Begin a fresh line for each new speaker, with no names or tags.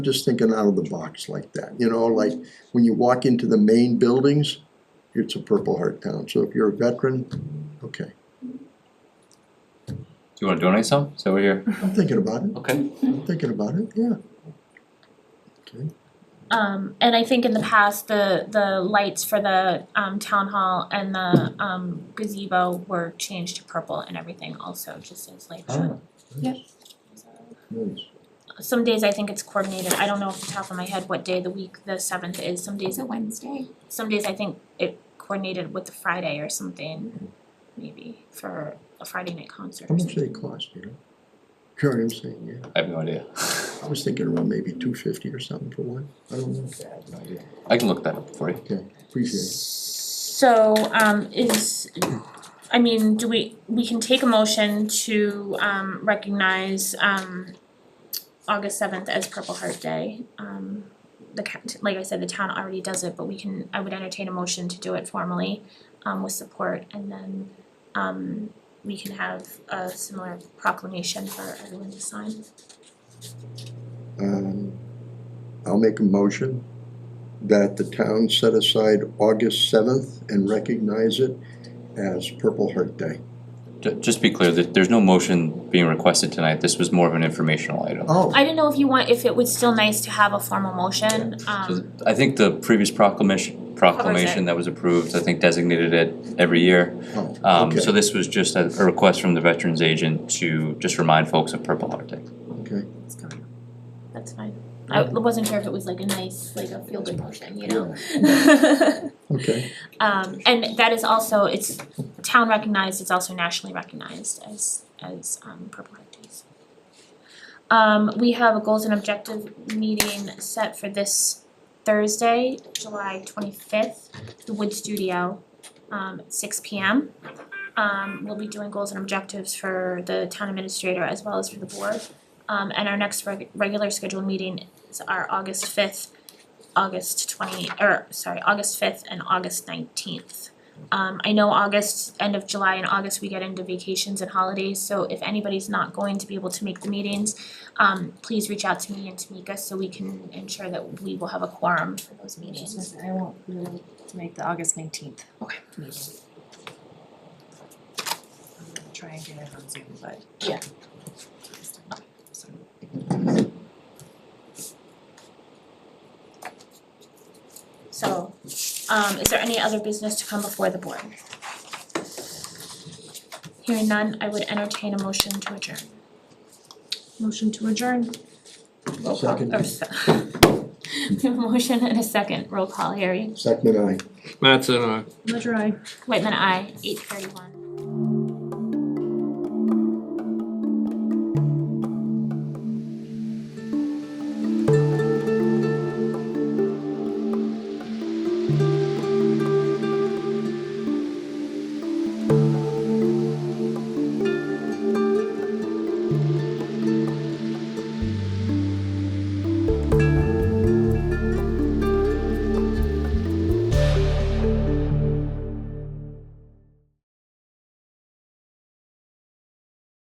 just thinking out of the box like that, you know, like when you walk into the main buildings, it's a Purple Heart town, so if you're a veteran, okay,
Do you wanna donate some? So we're here.
I'm thinking about it,
Okay.
I'm thinking about it, yeah.
Um, and I think in the past, the, the lights for the, um, town hall and the, um, gazebo were changed to purple and everything also, just as like.
Oh.
Yep.
Nice,
Some days I think it's coordinated, I don't know off the top of my head what day of the week the seventh is, some
It's
days,
a Wednesday.
some days I think it coordinated with the Friday or something, maybe, for a Friday night concert
how
or
much
something.
they cost, you know? Sure, I'm saying, yeah,
I have no idea.
I was thinking around maybe two fifty or something for one, I don't know,
I can look that up for you.
okay, appreciate it.
So, um, is, I mean, do we, we can take a motion to, um, recognize, um, August seventh as Purple Heart Day. Um, the, ca- like I said, the town already does it, but we can, I would entertain a motion to do it formally, um, with support, and then, um, we can have a similar proclamation for everyone to sign.
Um, I'll make a motion that the town set aside August seventh and recognize it as Purple Heart Day.
Ju- just be clear that there's no motion being requested tonight. This was more of an informational item.
Oh,
I didn't know if you want, if it was still nice to have a formal
So
motion,
th-
um,
I think the previous proclamation proclamation that was approved, I think designated it every year.
oh,
Um,
okay.
so this was just a, a request from the veterans agent to just remind folks of Purple Heart Day.
Okay,
That's fine. I wasn't sure if it was like a nice, like a feel good motion, you know?
okay,
Um, and that is also, it's town recognized, it's also nationally recognized as, as, um, Purple Heart Days. Um, we have a goals and objective meeting set for this Thursday, July twenty-fifth, the Wood Studio, um, at six P M. Um, we'll be doing goals and objectives for the town administrator as well as for the board. Um, and our next reg- regular scheduled meeting is our August fifth August twenty, or sorry, August fifth and August nineteenth. Um, I know August, end of July and August, we get into vacations and holidays, so if anybody's not going to be able to make the meetings, um, please reach out to me and Tamika so we can ensure that we will have a quorum for those meetings.
I won't be able to make the August nineteenth
Okay.
meeting. I'm gonna try and get it on Zoom, but.
Yeah.
So,
So, um, is there any other business to come before the board? Hearing none, I would entertain a motion to adjourn.
Motion to adjourn.
Roll call,
Second.
or se- We have a motion and a second, roll call, Harry.
Second and I.
Mattson, aye.
Ledger I.
Whitman, I eight thirty-one.